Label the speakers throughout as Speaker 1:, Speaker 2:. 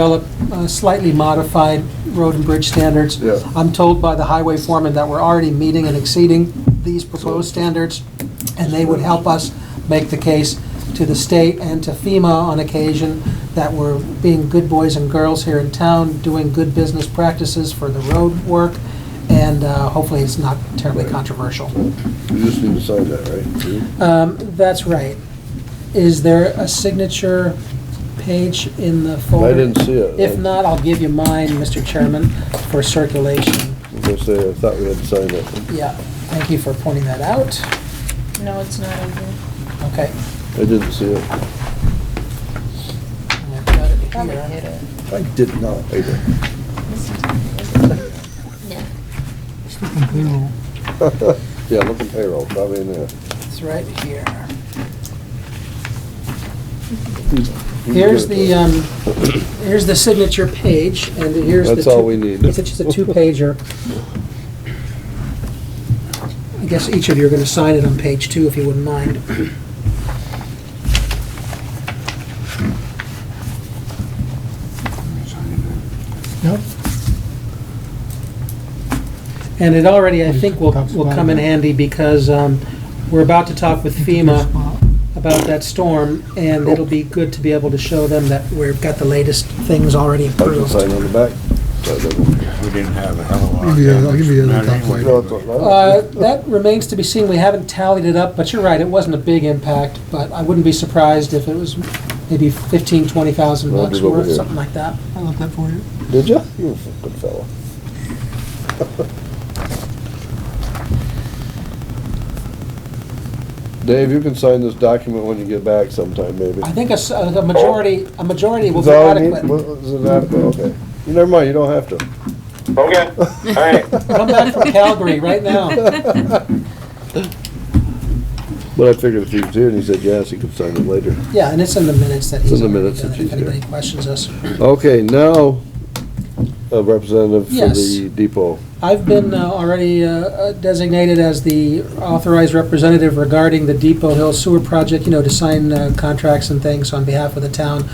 Speaker 1: develop uh, slightly modified road and bridge standards.
Speaker 2: Yeah.
Speaker 1: I'm told by the highway foreman that we're already meeting and exceeding these proposed standards, and they would help us make the case to the state and to FEMA on occasion that we're being good boys and girls here in town, doing good business practices for the road work, and uh, hopefully it's not terribly
Speaker 2: Right.
Speaker 1: controversial.
Speaker 2: You just need to sign that, right?
Speaker 1: Um, That's right. Is there a signature page in the folder?
Speaker 2: I didn't see it.
Speaker 1: If not, I'll give you mine, Mr. Chairman, for circulation.
Speaker 2: I was gonna say, I thought we had to sign that.
Speaker 1: Yeah, thank you for pointing that out.
Speaker 3: No, it's not in here.
Speaker 1: Okay.
Speaker 2: I didn't see it.
Speaker 1: I've got it
Speaker 3: Probably
Speaker 1: here.
Speaker 3: hit it.
Speaker 2: I did not either.
Speaker 3: Yeah.
Speaker 2: Yeah, look at payroll, probably in there.
Speaker 1: It's right here. Here's the, um, here's the signature page, and here's the.
Speaker 2: That's all
Speaker 1: two-
Speaker 2: we need.
Speaker 1: It's just a two-pager. I guess each of you are going to sign it on page two, if you wouldn't mind.
Speaker 4: Yep,
Speaker 1: And it already, I think, will, will come in handy because um, we're about to talk with FEMA about that storm, and it'll be good to be able to show them that we've got the latest things already
Speaker 2: I can
Speaker 1: approved.
Speaker 2: sign on the back. So I don't-
Speaker 5: We didn't have a hell of a lot.
Speaker 4: I'll
Speaker 5: of
Speaker 4: give you- I'll give you the
Speaker 5: damage.
Speaker 4: other top
Speaker 5: Anyway,
Speaker 4: plate.
Speaker 2: No, it's all right.
Speaker 1: Uh, That remains to be seen. We haven't tallied it up, but you're right, it wasn't a big impact, but I wouldn't be surprised if it was maybe 15, 20,000
Speaker 2: Roger's
Speaker 1: bucks
Speaker 2: over
Speaker 1: worth,
Speaker 2: here.
Speaker 1: something like that.
Speaker 4: I left that for you.
Speaker 2: Did ya? You a good fellow. Dave, you can sign this document when you get back sometime, maybe.
Speaker 1: I think a s- a majority, a majority will
Speaker 2: Is
Speaker 1: be
Speaker 2: that all you need?
Speaker 1: adequate.
Speaker 2: What- Is it adequate? Okay. Never mind, you don't have to.
Speaker 6: Okay, all right.
Speaker 1: Come back from Calgary right now.
Speaker 2: But I figured if he was here and he said yes, he could sign it later.
Speaker 1: Yeah, and it's in the minutes that
Speaker 2: It's in
Speaker 1: he's
Speaker 2: the
Speaker 1: already
Speaker 2: minutes
Speaker 1: done
Speaker 2: that
Speaker 1: it, if
Speaker 2: he's here.
Speaker 1: anybody questions us.
Speaker 2: Okay, now, a representative for
Speaker 1: Yes.
Speaker 2: the depot.
Speaker 1: I've been uh, already uh, uh, designated as the authorized representative regarding the Depot Hill Sewer Project, you know, to sign uh, contracts and things on behalf of the town.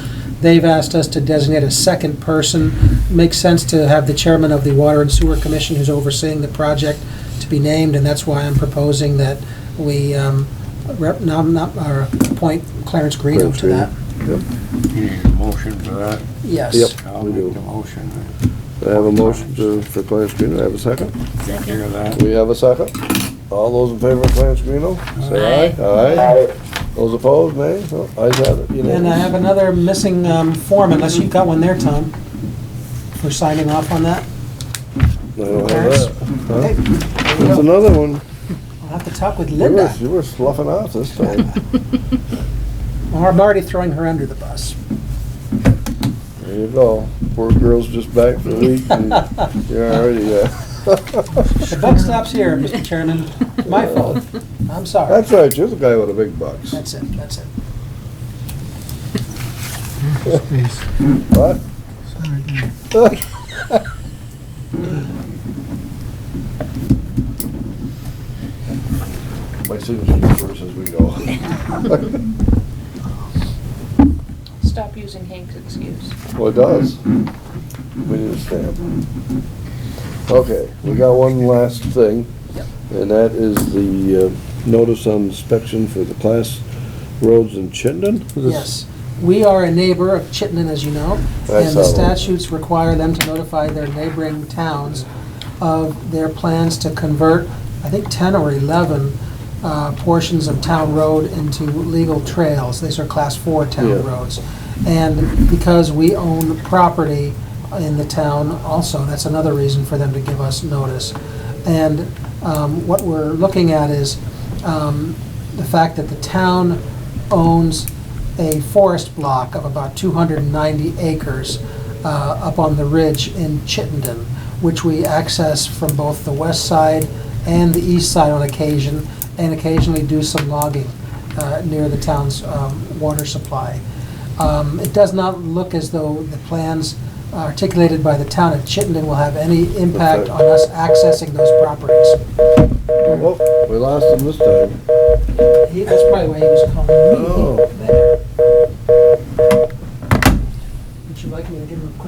Speaker 1: They've asked us to designate a second person. Makes sense to have the chairman of the Water and Sewer Commission who's overseeing the project to be named, and that's why I'm proposing that we um, rep- nom- nom- or appoint Clarence Greeno
Speaker 2: Clarence
Speaker 1: to that.
Speaker 5: You need a motion for that?
Speaker 1: Yes.
Speaker 2: Yep.
Speaker 5: I'll
Speaker 2: We
Speaker 5: make
Speaker 2: do.
Speaker 5: the motion.
Speaker 2: I have a motion to, for Clarence Greeno, I have a second.
Speaker 5: Take care of that.
Speaker 2: We have a second. All those in favor of Clarence Greeno, say aye. Aye.
Speaker 6: Aye.
Speaker 2: Those opposed, nay? No, Ayes have it,
Speaker 1: And I have
Speaker 2: unanimous.
Speaker 1: another missing um, form, unless you've got one there, Tom, for signing off on that.
Speaker 2: I don't have that.
Speaker 1: Okay,
Speaker 2: Huh?
Speaker 1: there we
Speaker 2: There's
Speaker 1: go.
Speaker 2: another one.
Speaker 1: I'll have to talk with
Speaker 2: You were,
Speaker 1: Linda,
Speaker 2: you were sloughing off this time.
Speaker 1: or I'm already throwing her under the bus.
Speaker 2: There you go. Poor girl's just back for the week and you're already, uh,
Speaker 1: The buck stops here, Mr. Chairman. My fault. I'm sorry.
Speaker 2: that's right, you're the guy with the big bucks.
Speaker 1: That's it, that's it.
Speaker 4: Space.
Speaker 2: What?
Speaker 4: Sorry, yeah.
Speaker 2: My signature first as we go.
Speaker 3: Stop using Hank's excuse.
Speaker 2: Well, it does. We need a stamp. Okay, we got one last thing, and that is the uh, notice on inspection for the class roads in Chittenden? Is this-
Speaker 1: Yes. We are a neighbor of Chittenden, as you know,
Speaker 2: I
Speaker 1: and the
Speaker 2: saw that.
Speaker 1: statutes require them to notify their neighboring towns of their plans to convert, I think, 10 or 11 uh, portions of town road into legal trails. These are Class 4 town
Speaker 2: Yeah.
Speaker 1: roads. And because we own property in the town also, that's another reason for them to give us notice. And um, what we're looking at is um, the fact that the town owns a forest block of about 290 acres uh, up on the ridge in Chittenden, which we access from both the west side and the east side on occasion, and occasionally do some logging uh, near the town's um, water supply. Um, It does not look as though the plans articulated by the town of Chittenden will have any impact on us accessing those properties.
Speaker 2: Oh, we lost him this time.
Speaker 1: He- That's probably why he was calling me
Speaker 2: Oh.
Speaker 1: there. Would you like me to give him a quick